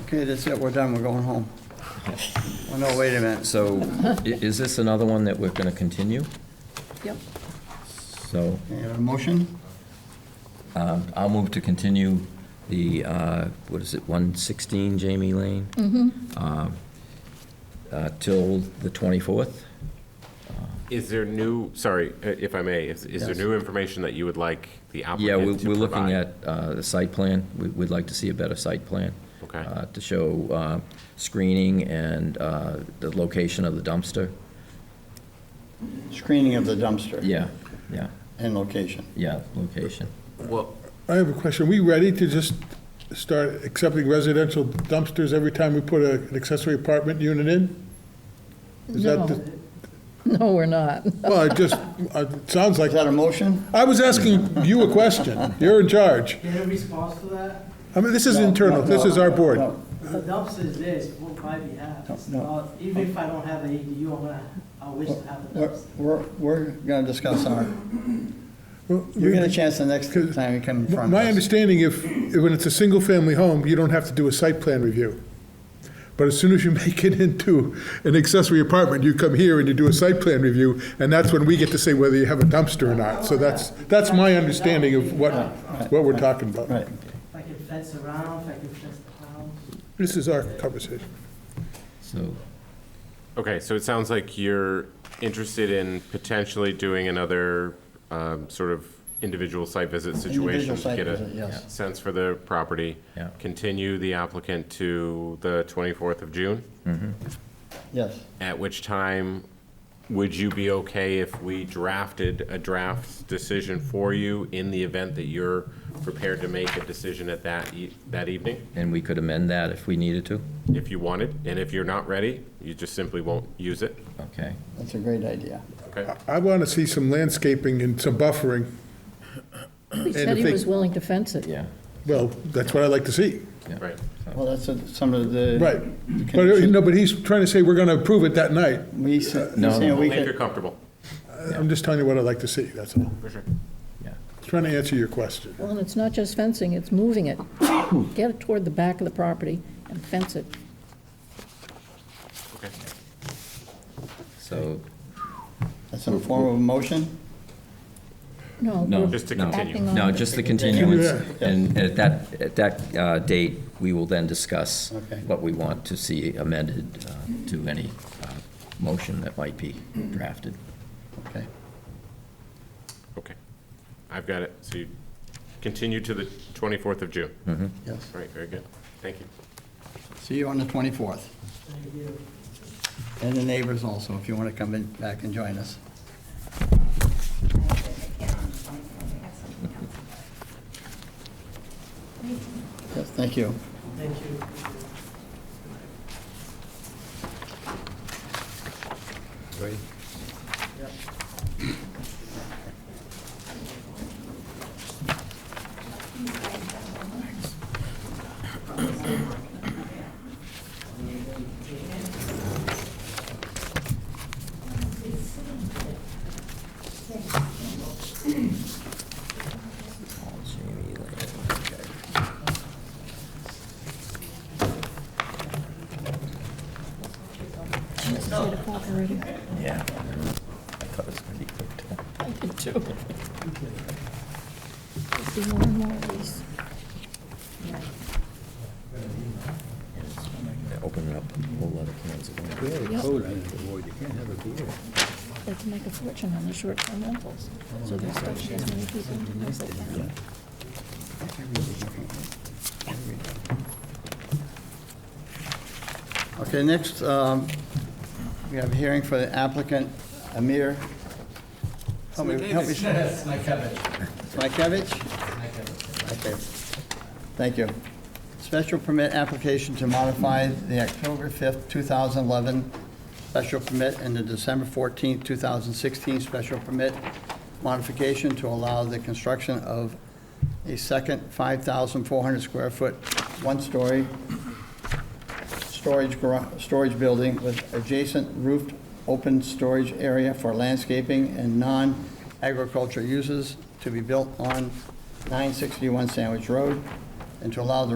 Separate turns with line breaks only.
Okay, that's it, we're done, we're going home. Oh, no, wait a minute.
So i- is this another one that we're going to continue?
Yep.
So
Okay, a motion?
um, I'll move to continue the, uh, what is it, 116 Jamie Lane? Um, uh, Till the 24th?
Is there new, sorry, uh, if I may, is is there
Yes.
new information that you would like the
Yeah, we're
applicant to
we're looking
provide?
at uh, the site plan. We- We'd like to see a better site plan.
Okay.
uh, To show uh, screening and uh, the location of the dumpster.
Screening of the dumpster.
Yeah, yeah,
And location.
yeah, location.
Well,
I have a question. Are we ready to just start accepting residential dumpsters every time we put a- an accessory apartment unit in? Is that the-
No, we're not.
Well, it just, uh, it sounds like,
Is that a motion?
I was asking you a question. You're in charge.
Do you have a response to that?
I mean, this is internal. This is our board.
No,
The dumpster is there, it's for my behalf. It's
No, no.
not- Uh, Even if I don't have an ADU, I'm gonna, I wish to have a
We're,
dumpster.
we're, we're gonna discuss our,
Well,
you get a chance the next
Because-
time you come in front
My
of us.
understanding, if, when it's a single-family home, you don't have to do a site plan review. But as soon as you make it into an accessory apartment, you come here and you do a site plan review, and that's when we get to say whether you have a dumpster or not. So that's, that's my understanding of what, what we're talking about.
Right,
If I can fence around, if I can fence the house.
This is our conversation.
So
okay, so it sounds like you're interested in potentially doing another um, sort of individual site visit situation
Individual
to
site
get
visit,
a
yes.
sense for the property.
Yeah.
Continue the applicant to the 24th of June,
yes.
at which time would you be okay if we drafted a draft decision for you in the event that you're prepared to make a decision at that, e- that evening?
And we could amend that if we needed to?
if you want it, and if you're not ready, you just simply won't use it,
Okay.
That's a great idea.
okay?
I want to see some landscaping and some buffering.
He
if
said he
they-
was willing to fence it.
Yeah.
Well, that's what I like to see.
Right.
Well, that's a- some of the.
Right. But, uh, no, but he's trying to say we're going to approve it that night.
We, s- he's
No.
saying we
Only if you're
could,
comfortable.
I'm just telling you what I like to see, that's all.
Yeah.
Trying to answer your question.
Well, and it's not just fencing, it's moving it. Get it toward the back of the property and fence it.
Okay.
So,
that's in the form of a motion?
No.
no.
we're
Just to
no.
continue.
acting on
No,
it.
just the continuance. And at that, at that uh, date, we will then discuss
Okay.
what we want to see amended uh, to any uh, motion that might be drafted.
Okay.
Okay. I've got it. So you continue to the 24th of June. All
Yes.
right, very good. Thank you.
See you on the 24th.
Thank you.
And the neighbors also, if you want to come in back and join us. Yes, thank you.
Thank you.
Yeah. I thought it was going to be quick, too.
I did too. See more and more of these.
They're Opening up a whole lot of cans of worms.
They can make a fortune on the short-term rentals. So there's such as many people in the town.
Okay, next, um, we have a hearing for the applicant, Amir. Help me, help me. Smykevich. Okay, thank you. Special permit application to modify the October 5th, 2011 special permit and the December 14th, 2016 special permit modification to allow the construction of a second 5,400 square foot, one-story storage garage, storage building with adjacent roofed open storage area for landscaping and non-agriculture uses to be built on 961 Sandwich Road, and to allow the